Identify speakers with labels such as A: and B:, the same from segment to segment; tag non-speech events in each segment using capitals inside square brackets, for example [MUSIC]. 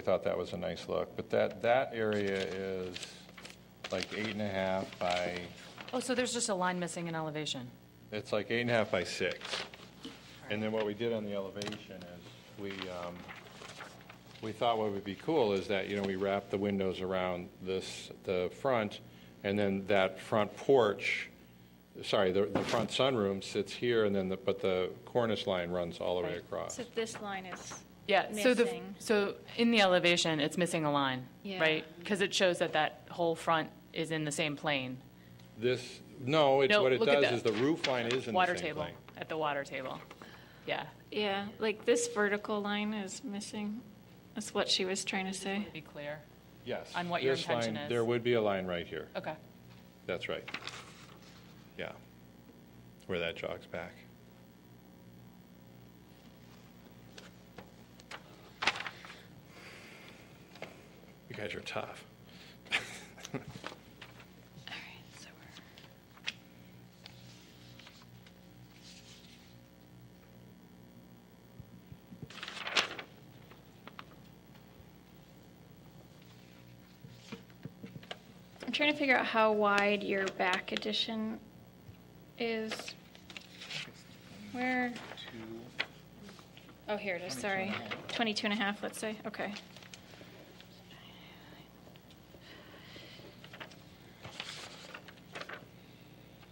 A: thought that was a nice look. But that, that area is like eight and a half by,
B: Oh, so there's just a line missing in elevation.
A: it's like eight and a half by six. And then what we did on the elevation is we, um, we thought what would be cool is that, you know, we wrap the windows around this, the front, and then that front porch, sorry, the, the front sunroom sits here, and then the, but the cornice line runs all the way
B: Right.
A: across.
C: So this line is,
B: Yeah, so the,
C: Missing.
B: so in the elevation, it's missing a line,
C: Yeah.
B: right? Because it shows that that whole front is in the same plane.
A: This, no, it's,
B: No,
A: what it
B: look
A: does
B: at that.
A: is the roof line is in the
B: Water
A: same
B: table,
A: plane.
B: at the water table. Yeah,
C: yeah, like this vertical line is missing. That's what she was trying to say.
B: be clear.
A: Yes.
B: On what your
A: this line-
B: intention is.
A: There would be a line right here.
B: Okay.
A: That's right. Yeah. Where that jogs back. You guys are [LAUGHS] tough.
C: All right, so we're- I'm trying to figure out how wide your back addition is. Where? Oh, here it is, sorry. 22 and a half, let's say, okay.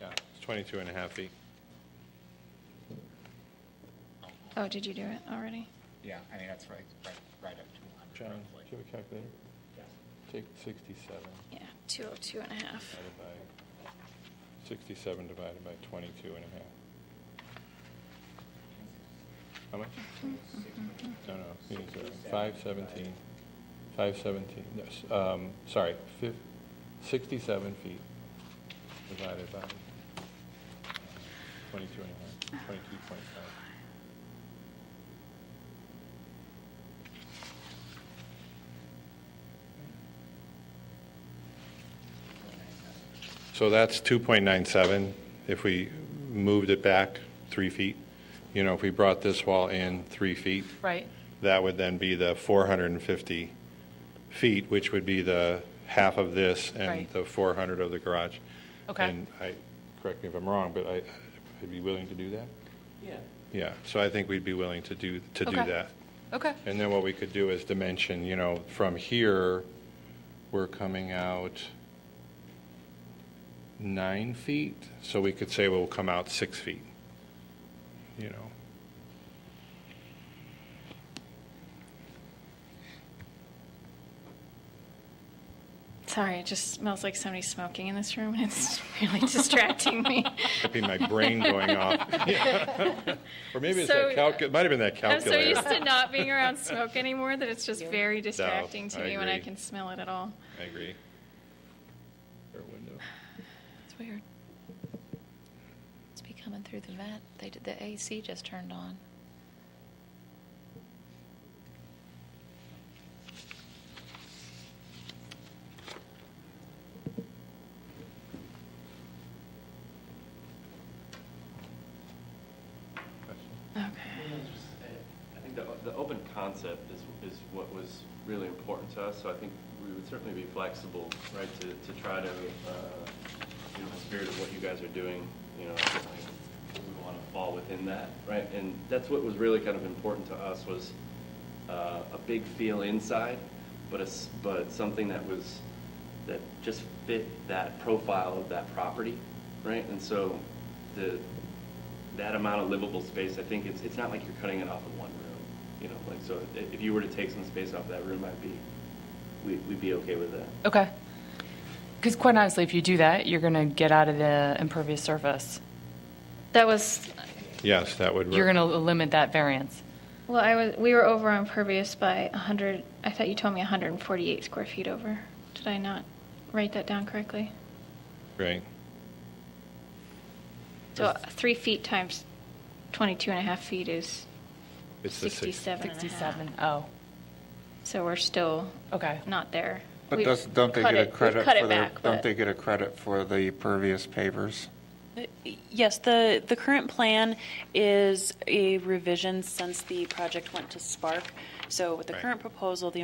A: Yeah, it's 22 and a half feet.
C: Oh, did you do it already?
D: Yeah, I mean, that's right, right, right up to 100
A: John,
D: roughly.
A: do you have a calculator? Take 67
C: Yeah, 202 and a half.
A: divided by, 67 divided by 22 and a half. How much? No, uh, no, you need to- 517, 517, no, s- um, sorry, fif- 67 feet divided by 22 and a half, 22.5. So that's 2.97 if we moved it back three feet. You know, if we brought this wall in three feet,
B: Right,
A: that would then be the 450 feet, which would be the half of this and
B: Right.
A: the 400 of the garage.
B: Okay.
A: And I, correct me if I'm wrong, but I, I'd be willing to do that?
E: Yeah,
A: Yeah, so I think we'd be willing to do, to do
B: Okay.
A: that.
B: okay.
A: And then what we could do is dimension, you know, from here, we're coming out nine feet, so we could say we'll come out six feet, you know.
C: Sorry, it just smells like somebody smoking in this room, and it's [LAUGHS] really distracting me.
A: Could be my brain going
C: [LAUGHS]
A: off. [LAUGHS] Yeah. Or maybe it's that
C: So-
A: calc, it might have been that
C: I'm so
A: calculator.
C: used to not being around smoke anymore that it's just very distracting to
A: I
C: me when I
A: agree.
C: can smell it at all.
A: I agree. Or window.
F: It's weird. Must be coming through the vent. They, did- the AC just turned on.
C: Okay.
E: I think the, the open concept is, is what was really important to us, so I think we would certainly be flexible, right, to, to try to, uh, you know, the spirit of what you guys are doing, you know, certainly we want to fall within that, right? And that's what was really kind of important to us was uh, a big feel inside, but a, s- but something that was, that just fit that profile of that property, right? And so the, that amount of livable space, I think it's, it's not like you're cutting it off in one room, you know, like, so i- if you were to take some space off that room, I'd be, we- we'd be okay with that.
B: Okay. Because quite honestly, if you do that, you're going to get out of the impervious surface.
C: That was,
A: Yes, that would.
B: You're going to limit that variance.
C: well, I was, we were over on Pervious by 100, I thought you told me 148 square feet over. Did I not write that down correctly?
A: Right.
C: So three feet times 22 and a half feet is
A: It's the six.
C: 67 and a half.
B: 67, oh,
C: So we're still
B: okay.
C: not there.
D: But
C: We've
D: does, don't they
C: cut
D: get a
C: it- we've
D: credit
C: cut it
D: for the,
C: back,
D: don't
C: but-
D: they get a credit for the pervious pavers?
G: Yes, the, the current plan is a revision since the project went to Spark. So with the
A: Right.
G: current proposal, the